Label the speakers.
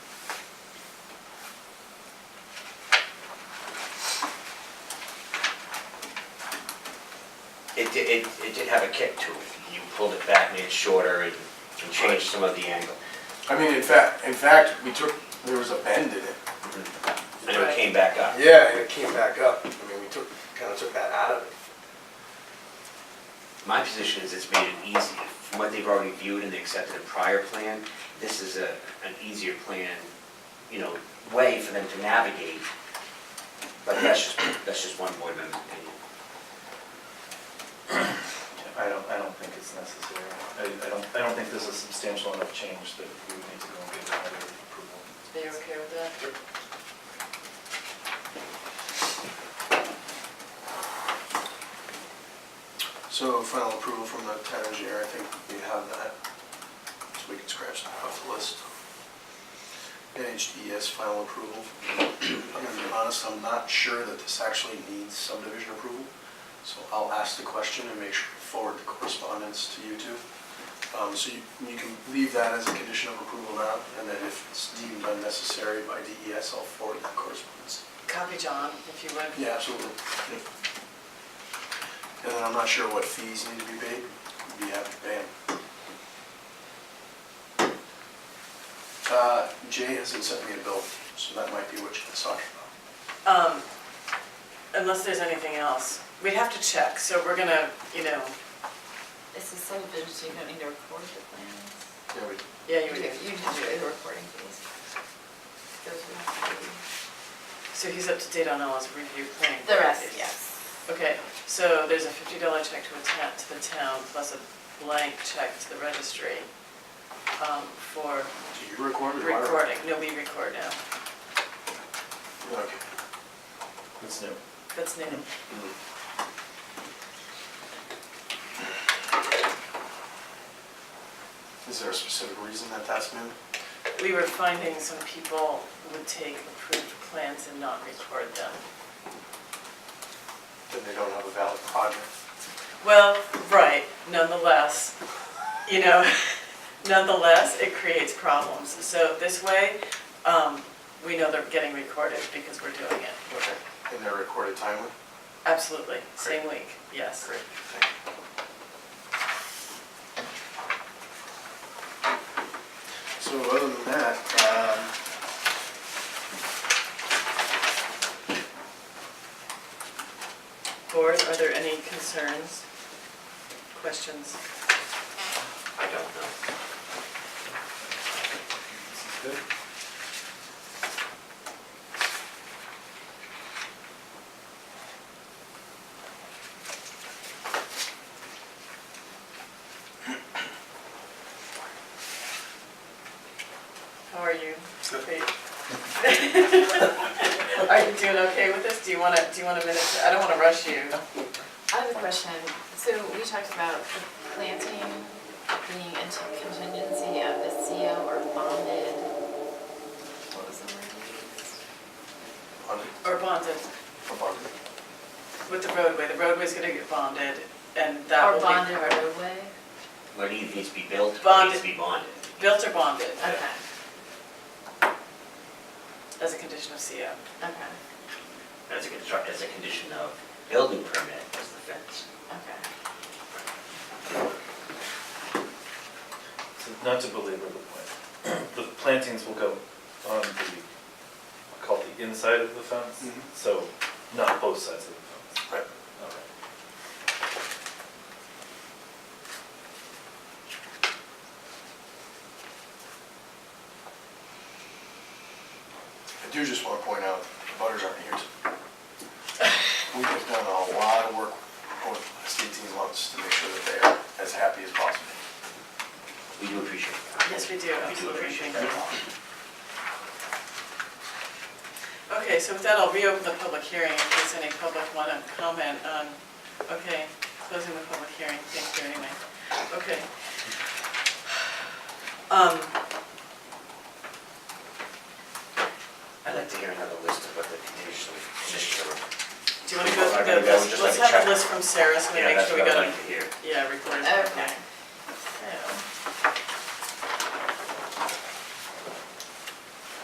Speaker 1: It did, it, it did have a kick to it. You pulled it back, made it shorter, and and changed some of the angle.
Speaker 2: I mean, in fact, in fact, we took, there was a bend in it.
Speaker 3: Mm-hmm.
Speaker 1: And it came back up.
Speaker 2: Yeah, and it came back up. I mean, we took, kind of took that out of it.
Speaker 1: My position is it's made it easy. From what they've already viewed and they accepted a prior plan, this is a, an easier plan, you know, way for them to navigate. But that's just, that's just one board member's opinion.
Speaker 4: I don't, I don't think it's necessary. I, I don't, I don't think this is substantial enough change that we would need to go and get another approval.
Speaker 3: They okay with that?
Speaker 2: So final approval from the town engineer, I think we have that, so we can scratch that off the list. NHDES final approval. I'm gonna be honest, I'm not sure that this actually needs subdivision approval, so I'll ask the question and make sure to forward the correspondence to you two. Um, so you, you can leave that as a condition of approval now, and then if it's deemed unnecessary by DES, I'll forward that correspondence.
Speaker 3: Copy John, if you would.
Speaker 2: Yeah, absolutely. Yep. And then I'm not sure what fees need to be paid. We'd be happy to pay 'em. Uh, Jay hasn't sent me a bill, so that might be what you're talking about.
Speaker 3: Um, unless there's anything else. We'd have to check, so we're gonna, you know,
Speaker 5: This is subdivision, so you don't need to record the plans.
Speaker 2: Yeah, we,
Speaker 3: yeah, you would.
Speaker 5: You just do the recording fees. Those would have to be-
Speaker 3: So he's up to date on all his review plan.
Speaker 5: The rest, yes.
Speaker 3: Okay, so there's a fifty dollar check to a ta- to the town plus a blank check to the registry, um, for
Speaker 2: do you record it?
Speaker 3: recording. No, we record now.
Speaker 2: Okay.
Speaker 4: It's new.
Speaker 3: That's new.
Speaker 2: Mm-hmm. Is there a specific reason that that's new?
Speaker 3: We were finding some people would take approved plans and not record them.
Speaker 2: That they don't have a valid project?
Speaker 3: Well, right, nonetheless, you know, nonetheless, it creates problems. So this way, um, we know they're getting recorded because we're doing it.
Speaker 2: Okay. And they're recorded timely?
Speaker 3: Absolutely, same week, yes.
Speaker 2: Great, thank you. So other than that, um,
Speaker 3: Board, are there any concerns, questions?
Speaker 1: I don't know.
Speaker 4: This is good.
Speaker 3: How are you? Great. Are you doing okay with this? Do you want to, do you want a minute? to- I don't want to rush you.
Speaker 5: I have a question. So we talked about the planting being a contingency of the CO or bonded. What was the word? you used?
Speaker 2: on
Speaker 3: Or bonded
Speaker 2: on-
Speaker 3: with the roadway. The roadway's going to get bonded and that
Speaker 5: Or
Speaker 3: will be.
Speaker 5: bonded or roadway?
Speaker 1: What either needs to be built, what needs
Speaker 3: Bonded.
Speaker 1: to be bonded.
Speaker 3: Built or bonded
Speaker 5: Okay,
Speaker 3: as a condition of CO.
Speaker 5: okay,
Speaker 1: As a construct, as a condition of building permit as the fence.
Speaker 5: okay.
Speaker 4: So not to belabor the point, the plantings will go on the, called the inside of the fence,
Speaker 2: Mhm.
Speaker 4: so not both sides of the fence.
Speaker 2: Right.
Speaker 4: Okay.
Speaker 2: I do just want to point out, the butters aren't here. today. We have done a lot of work over the last 18 months to make sure that they are as happy as possible.
Speaker 1: We do appreciate that.
Speaker 3: Yes, we
Speaker 1: We
Speaker 3: do,
Speaker 1: do
Speaker 3: absolutely.
Speaker 1: appreciate
Speaker 3: Thank
Speaker 1: that.
Speaker 3: Okay, so with that, I'll reopen the public hearing in case any public want to comment on, okay, closing the public hearing, thank you anyway. Okay. Um,
Speaker 1: I'd like to hear another list of what the condition, conditions are.
Speaker 3: do you want to go
Speaker 1: I'm
Speaker 3: through
Speaker 1: gonna go
Speaker 3: the list?
Speaker 1: just like
Speaker 3: Let's
Speaker 1: a
Speaker 3: have
Speaker 1: check.
Speaker 3: a list from Sarah so we
Speaker 1: Yeah,
Speaker 3: make
Speaker 1: that's
Speaker 3: sure
Speaker 1: what
Speaker 3: we
Speaker 1: I'd
Speaker 3: got
Speaker 1: like
Speaker 3: it.
Speaker 1: to hear.
Speaker 3: Yeah, recorded.
Speaker 5: Okay.